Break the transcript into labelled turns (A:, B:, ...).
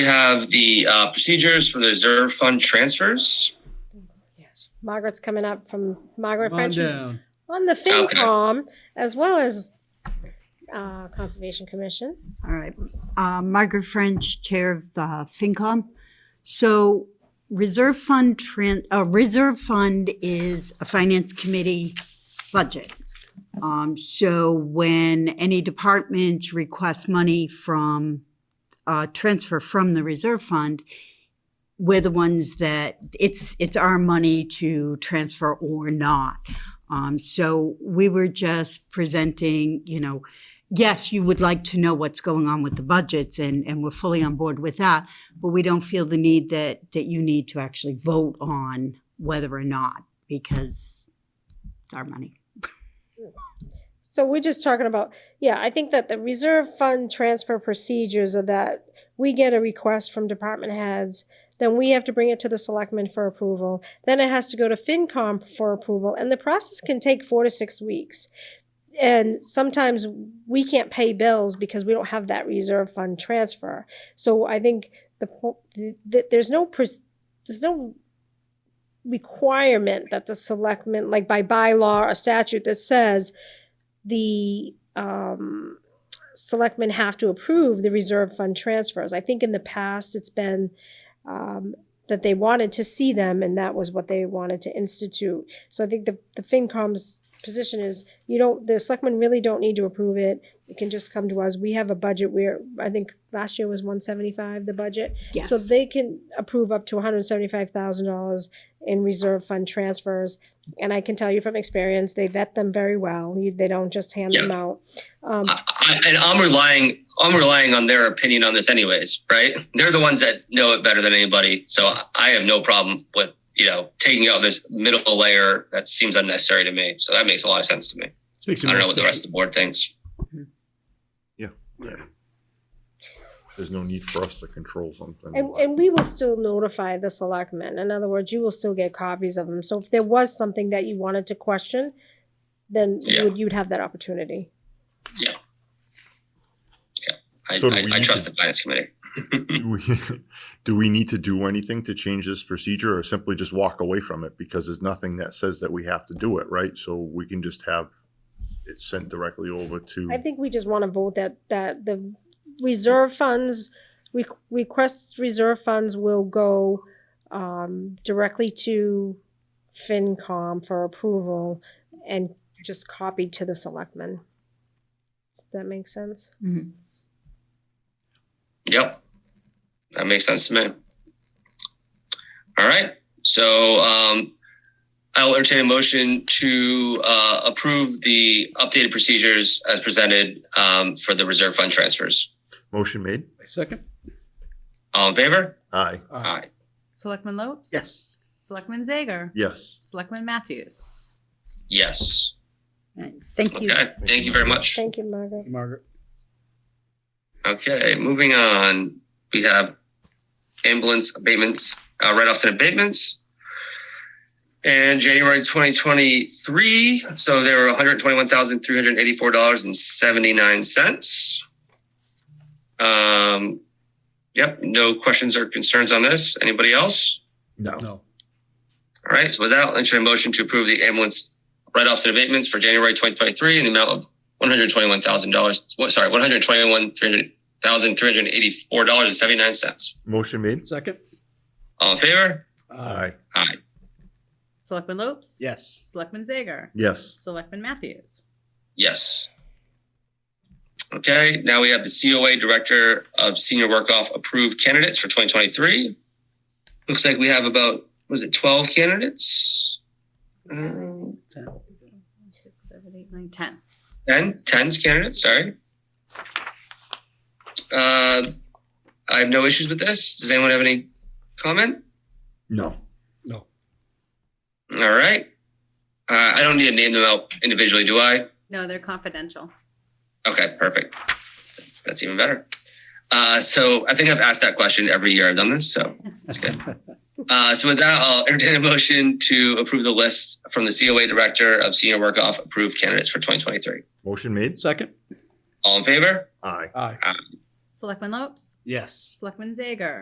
A: We have the uh, procedures for the reserve fund transfers.
B: Margaret's coming up from Margaret
C: Come on
B: French is
C: down.
B: on the
A: Okay.
B: FinCom as well as uh, Conservation Commission.
D: All right. Uh, Margaret French, Chair of the FinCom. So reserve fund, tran- uh, reserve fund is a finance committee budget. Um, So when any department requests money from, uh, transfer from the reserve fund, we're the ones that, it's, it's our money to transfer or not. Um, So we were just presenting, you know, yes, you would like to know what's going on with the budgets, and, and we're fully on board with that, but we don't feel the need that, that you need to actually vote on whether or not, because it's our money.
B: So we're just talking about, yeah, I think that the reserve fund transfer procedures are that we get a request from department heads, then we have to bring it to the selectmen for approval, then it has to go to FinCom for approval, and the process can take four to six weeks. And sometimes we can't pay bills because we don't have that reserve fund transfer. So I think the, po- th- th- there's no, pres- there's no requirement that the selectmen, like by bylaw or statute that says the um, selectmen have to approve the reserve fund transfers. I think in the past, it's been um, that they wanted to see them, and that was what they wanted to institute. So I think the, the FinCom's position is, you don't, the selectmen really don't need to approve it. It can just come to us. We have a budget where, I think last year was one seventy-five, the budget. So
D: Yes,
B: they can approve up to one hundred seventy-five thousand dollars in reserve fund transfers, and I can tell you from experience, they vet them very well. You, they don't just hand them out. Um,
A: I, I, and I'm relying I'm relying on their opinion on this anyways, right? They're the ones that know it better than anybody. So I- I have no problem with, you know, taking out this middle layer that seems unnecessary to me. So that makes a lot of sense to me.
C: This makes
A: I
C: you
A: don't
C: more
A: know what the
C: efficient.
A: rest of the board thinks.
E: There's no need for us to control something.
B: and, and we will still notify the selectmen. In other words, you will still get copies of them. So if there was something that you wanted to question, then you
A: Yeah.
B: would, you'd have that opportunity.
A: I,
E: So do
A: I,
E: we
A: I
E: need
A: trust
E: to-
A: the finance committee.
E: Do we, do we need to do anything to change this procedure or simply just walk away from it? Because there's nothing that says that we have to do it, right? So we can just have it sent directly over
B: I
E: to,
B: think we just want to vote that, that the reserve funds, re- requests reserve funds will go um, directly to FinCom for approval and just copied to the selectmen. Does that make sense?
D: Mhm.
A: Yep. That makes sense to me. All right. So um, I will entertain a motion to uh, approve the updated procedures as presented um, for the reserve fund transfers.
E: motion made?
C: Second? Uh,
A: All in favor?
E: Aye,
A: Aye.
F: Selectman Lopes?
C: Yes.
F: Selectman Zager?
E: yes.
F: Selectman Matthews?
A: Yes.
D: thank you.
A: Okay. Thank you very much.
B: Thank you, Margaret.
C: Margaret?
A: Okay. Moving on, we have ambulance abatements, uh, write offs and abatements. And January 2023, so there were $121,384.79. Um, yep, no questions or concerns on this. Anybody else?
C: No.
A: All right, so with that, I'll entertain a motion to approve the ambulance write-offs and abatements for January 2023 in the amount of $121,000, what, sorry, $121,384.79.
E: Motion made?
C: Second? Uh,
A: All in favor?
E: Aye,
A: Aye.
F: Selectman Lopes?
C: Yes.
F: Selectman Zager?
E: yes.
F: Selectman Matthews?
A: Yes. Okay, now we have the COA Director of Senior Work Off approved candidates for 2023. Looks like we have about, was it 12 candidates? Um,
F: One, two, seven, eight, nine, ten.
A: 10, 10 candidates, sorry. Uh, I have no issues with this. Does anyone have any comment?
E: No.
C: No.
A: All right. Uh, I don't need to name them out individually, do I?
F: No, they're confidential.
A: Okay, perfect. That's even better. Uh, so I think I've asked that question every year I've done this, so that's good. Uh, so with that, I'll entertain a motion to approve the list from the COA Director of Senior Work Off approved candidates for 2023.
E: Motion made?
C: Second?
A: All in favor?
E: Aye,
C: Aye.
F: Selectman Lopes?
C: Yes.
F: Selectman Zager?